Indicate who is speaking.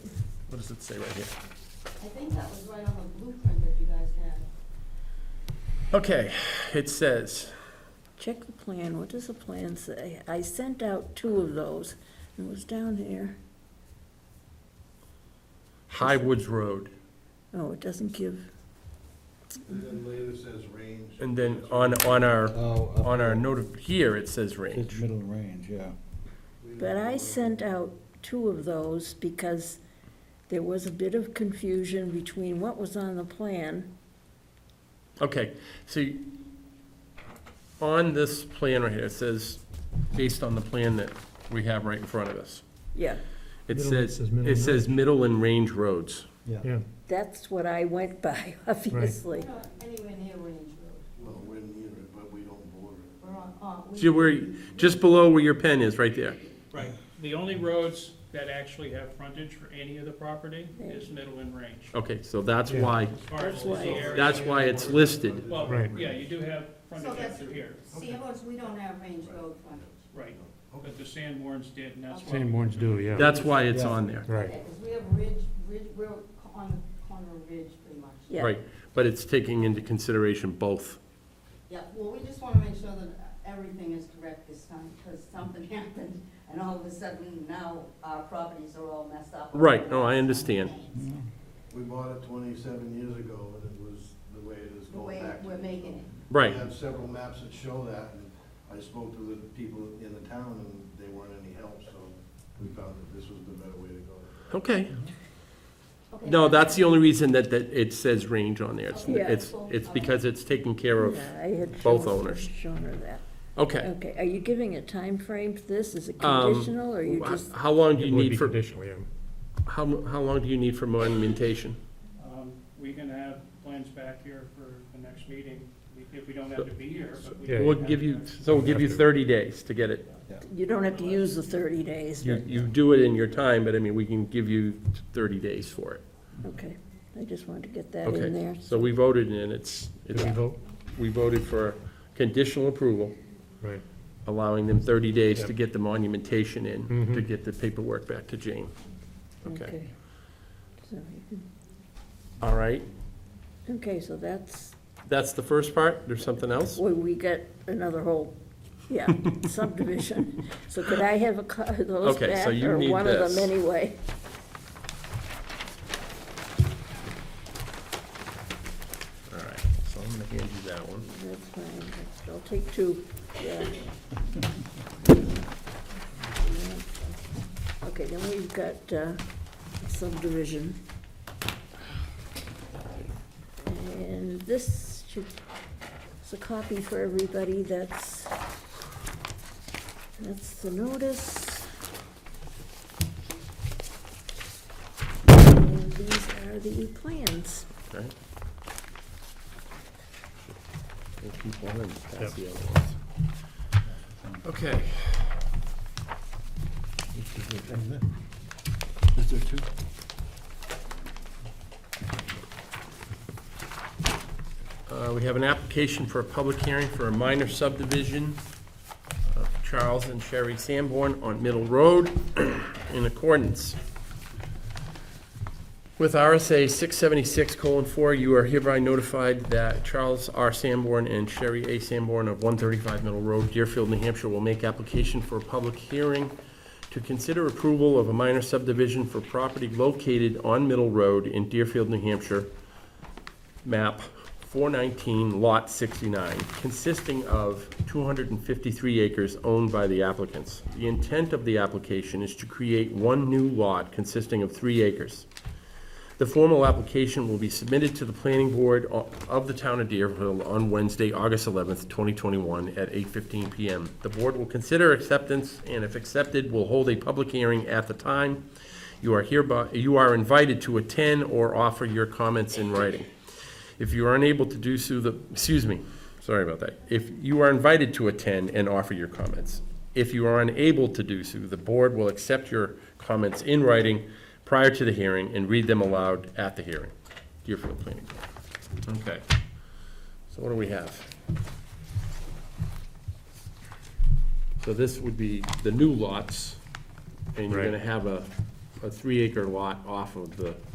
Speaker 1: does it say right here?
Speaker 2: I think that was right on the blueprint that you guys had.
Speaker 1: Okay, it says,
Speaker 3: Check the plan, what does the plan say? I sent out two of those, and it was down here.
Speaker 1: High Woods Road,
Speaker 3: Oh, it doesn't give,
Speaker 4: And then later says range.
Speaker 1: and then on, on our,
Speaker 5: Oh, up
Speaker 1: on our
Speaker 5: here.
Speaker 1: note of, here it says range.
Speaker 5: It's middle range, yeah.
Speaker 4: We don't
Speaker 3: but
Speaker 4: know
Speaker 3: I
Speaker 4: what-
Speaker 3: sent out two of those because there was a bit of confusion between what was on the plan.
Speaker 1: Okay, so you- on this plan right here, it says, based on the plan that we have right in front of us,
Speaker 3: Yeah,
Speaker 1: it
Speaker 6: Middle-
Speaker 1: says,
Speaker 6: says middle
Speaker 1: it
Speaker 6: and
Speaker 1: says middle and range roads.
Speaker 6: Yeah,
Speaker 3: that's what I went by, obviously.
Speaker 2: We're not anywhere near Range Road.
Speaker 4: Well, we're near it, but we don't border it.
Speaker 2: We're on, on. we-
Speaker 1: See where, just below where your pen is, right there.
Speaker 7: Right, the only roads that actually have frontage for any of the property is Middle and Range.
Speaker 1: Okay, so that's
Speaker 6: Yeah.
Speaker 1: why,
Speaker 7: As far as
Speaker 3: That's why-
Speaker 7: the area-
Speaker 1: Oh. that's why it's listed.
Speaker 7: Well,
Speaker 6: Right.
Speaker 7: yeah, you do have
Speaker 2: So
Speaker 7: frontage up
Speaker 2: that's,
Speaker 7: to here,
Speaker 2: see, ours, we don't have Range Road frontage.
Speaker 7: right, but the Sanborns did, and that's why.
Speaker 6: same ones do, yeah.
Speaker 1: That's why it's
Speaker 5: Yeah.
Speaker 1: on there.
Speaker 6: Right,
Speaker 2: Because we have Ridge, Ridge, we're on the corner of Ridge pretty much.
Speaker 3: Yeah.
Speaker 1: Right, but it's taking into consideration both.
Speaker 2: Yeah, well, we just want to make sure that everything is correct this time, because something happened, and all of a sudden now our properties are all messed up.
Speaker 1: Right, no, I understand.
Speaker 4: We bought it twenty-seven years ago, and it was the way it is
Speaker 2: The
Speaker 4: going
Speaker 2: way
Speaker 4: back. to
Speaker 2: we're
Speaker 4: it.
Speaker 2: making it.
Speaker 1: Right,
Speaker 4: We have several maps that show that, and I spoke to the people in the town, and they weren't any help, so we found that this was the better way to go.
Speaker 1: okay.
Speaker 2: Okay.
Speaker 1: No, that's the only reason that, that it says range on there. It's,
Speaker 3: Yeah.
Speaker 1: it's, it's because it's taken care of.
Speaker 3: Yeah, I had
Speaker 1: both
Speaker 3: shown-
Speaker 1: owners.
Speaker 3: Shown her that.
Speaker 1: Okay.
Speaker 3: Okay, are you giving a time frame for this? Is it
Speaker 1: Um,
Speaker 3: conditional, or you
Speaker 1: wh-
Speaker 3: just,
Speaker 1: How long do
Speaker 6: it
Speaker 1: you
Speaker 6: would be
Speaker 1: need for,
Speaker 6: conditional, yeah.
Speaker 1: how, how long do you need for monumentation?
Speaker 7: Um, We can have plans back here for the next meeting, if we don't have to be here, but we.
Speaker 6: Yeah.
Speaker 7: can
Speaker 1: We'll
Speaker 7: have
Speaker 1: give
Speaker 7: the
Speaker 1: you,
Speaker 7: next-
Speaker 1: so we'll give you thirty days to get it.
Speaker 3: you don't have to use the thirty days,
Speaker 1: You,
Speaker 3: but,
Speaker 1: you do it in your time, but I mean, we can give you thirty days for it.
Speaker 3: okay. I just wanted to get that in
Speaker 1: Okay,
Speaker 3: there.
Speaker 1: so we voted and it's,
Speaker 6: Did we
Speaker 1: it's,
Speaker 6: vote?
Speaker 1: we voted for conditional approval,
Speaker 6: Right.
Speaker 1: allowing them thirty days to
Speaker 6: Yep.
Speaker 1: get the monumentation in, to
Speaker 6: Mhm.
Speaker 1: get the paperwork back to Jane. Okay,
Speaker 3: Okay. So you can
Speaker 1: all right.
Speaker 3: Okay, so that's,
Speaker 1: That's the first part. There's something else?
Speaker 3: well, we get another whole, yeah, subdivision. So could I have a, co- those
Speaker 1: Okay, so
Speaker 3: back,
Speaker 1: you
Speaker 3: or
Speaker 1: need
Speaker 3: one of
Speaker 1: this.
Speaker 3: them anyway?
Speaker 1: All right, so I'm gonna hand you that one.
Speaker 3: That's fine, I'll take two, yeah. Okay, then we've got uh, subdivision. And this should, it's a copy for everybody, that's, that's the notice. And these are the plans.
Speaker 1: Okay. We'll keep one and pass
Speaker 6: Yep.
Speaker 1: the other ones. Okay.
Speaker 5: Is there two?
Speaker 1: Uh, We have an application for a public hearing for a minor subdivision of Charles and Sherry Sanborn on Middle Road in accordance with RSA 676:4. You are hereby notified that Charles R. Sanborn and Sherry A. Sanborn of 135 Middle Road, Deerfield, New Hampshire, will make application for a public hearing to consider approval of a minor subdivision for property located on Middle Road in Deerfield, New Hampshire, map 419, lot 69, consisting of 253 acres owned by the applicants. The intent of the application is to create one new lot consisting of three acres. The formal application will be submitted to the planning board o- of the town of Deerfield on Wednesday, August 11th, 2021, at 8:15 PM. The board will consider acceptance, and if accepted, will hold a public hearing at the time. You are hereby, you are invited to attend or offer your comments in writing. If you are unable to do so, the, excuse me, sorry about that. If you are invited to attend and offer your comments. If you are unable to do so, the board will accept your comments in writing prior to the hearing and read them aloud at the hearing. Deerfield Planning Board. Okay. So what do we have? So this would be the new lots, and you're
Speaker 6: Right.
Speaker 1: gonna have a a three acre lot off of the